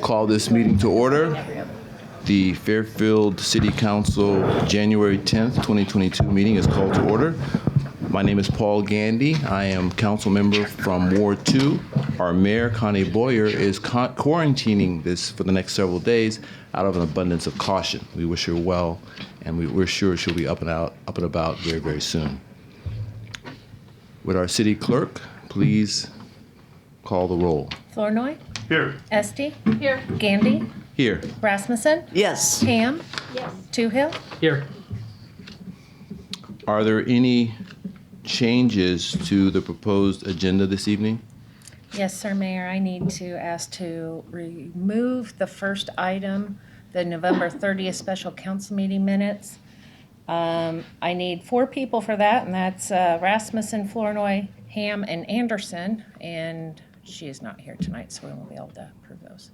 Call this meeting to order. The Fairfield City Council, January 10th, 2022 meeting is called to order. My name is Paul Gandy. I am council member from Ward 2. Our mayor, Connie Boyer, is con- quarantining this for the next several days out of an abundance of caution. We wish her well, and we- we're sure she'll be up and out, up and about very, very soon. Would our city clerk please call the roll? Flournoy. Here. Esti. Here. Gandy. Here. Rasmussen. Yes. Ham. Yes. Toohill. Here. Are there any changes to the proposed agenda this evening? Yes, sir, Mayor, I need to ask to remove the first item, the November 30th special council meeting minutes. Um, I need four people for that, and that's uh, Rasmussen, Flournoy, Ham, and Anderson, and she is not here tonight, so we won't be able to approve those.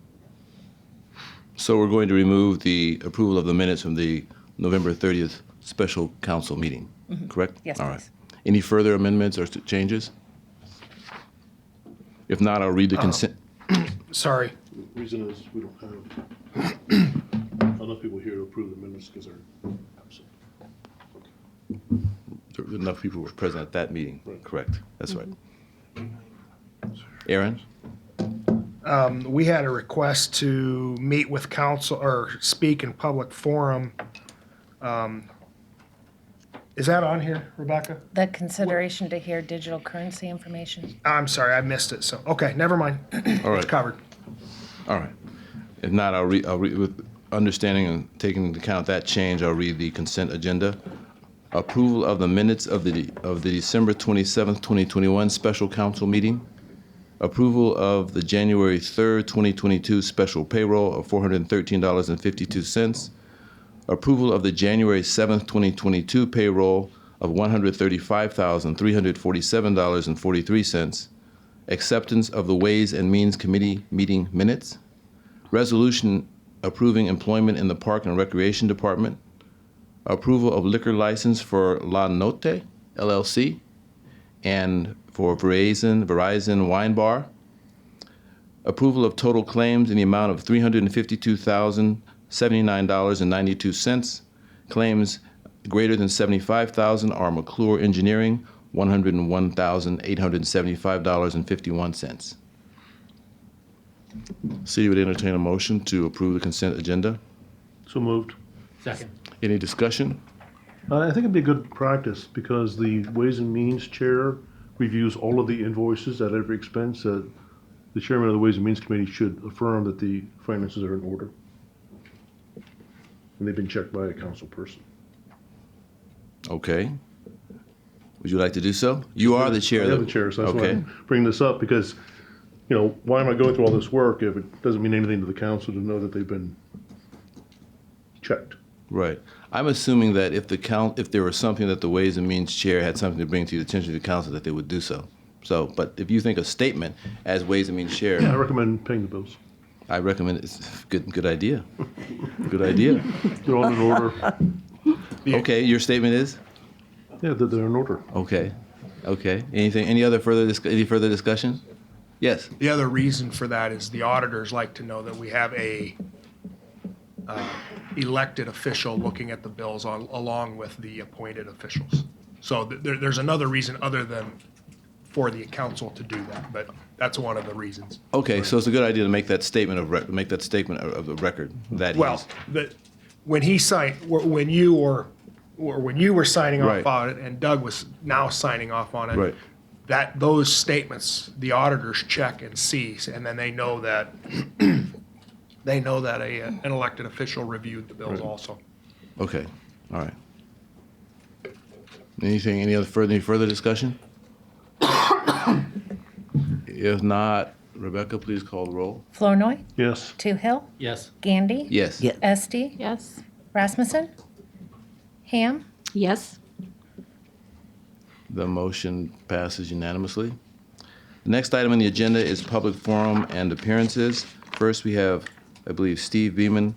So we're going to remove the approval of the minutes from the November 30th special council meeting, correct? Mm-hmm. Yes, All right. please. Any further amendments or st- changes? If not, I'll read the consent. Sorry. Reason is, we don't have enough people here to approve the minutes because they're absent. There were Enough people were present at that meeting, correct? That's right. Mm-hmm. Aaron? We had a request to meet with council or speak in public forum. Um, Is that on here, Rebecca? The consideration to hear digital currency information. I'm sorry, I missed it. So, okay, never mind. All It's right, covered. all right. If not, I'll read, I'll read, with understanding and taking into account that change, I'll read the consent agenda. Approval of the minutes of the, of the December 27th, 2021 special council meeting. Approval of the January 3rd, 2022 special payroll of $413.52. Approval of the January 7th, 2022 payroll of $135,347.43. Acceptance of the Ways and Means Committee meeting minutes. Resolution approving employment in the Park and Recreation Department. Approval of liquor license for La Note LLC and for Verizon, Verizon Wine Bar. Approval of total claims in the amount of $352,079.92. Claims greater than 75,000 are McClure Engineering, $101,875.51. City would entertain a motion to approve the consent agenda. So moved. Second. Any discussion? Uh, I think it'd be good practice because the Ways and Means Chair reviews all of the invoices at every expense. Uh, The Chairman of the Ways and Means Committee should affirm that the finances are in order. And they've been checked by a council person. Okay. Would you like to do so? You are the chair. I am though. the chair, so that's why Okay. I bring this up because, you know, why am I going through all this work if it doesn't mean anything to the council to know that they've been checked? Right. I'm assuming that if the count, if there was something that the Ways and Means Chair had something to bring to the attention of the council, that they would do so. So, but if you think a statement as Ways and Means Chair, I recommend paying the bills. I recommend it's good. Good idea. Good idea. They're all in order. Okay, your statement is Yeah, they're, they're in order. okay. Okay. Anything? Any other further? Dis- any further discussion? Yes. The other reason for that is the auditors like to know that we have a uh, elected official looking at the bills al- along with the appointed officials. So th- there, there's another reason other than for the council to do that, but that's one of the reasons. Okay. So it's a good idea to make that statement of rec- make that statement of, of the record. That Well, he's- the, when he signed, wh- when you were, or when you were signing Right. off on it and Doug was now signing off on it. Right. That, those statements, the auditors check and see, and then they know that, they know that a, an elected official reviewed the bills also. Okay, all right. Anything, any other further, any further discussion? If not, Rebecca, please call the roll. Flournoy. Yes. Toohill. Yes. Gandy. Yes. Yeah. Esti. Yes. Rasmussen. Ham. Yes. The motion passes unanimously. The next item on the agenda is public forum and appearances. First, we have, I believe, Steve Beaman,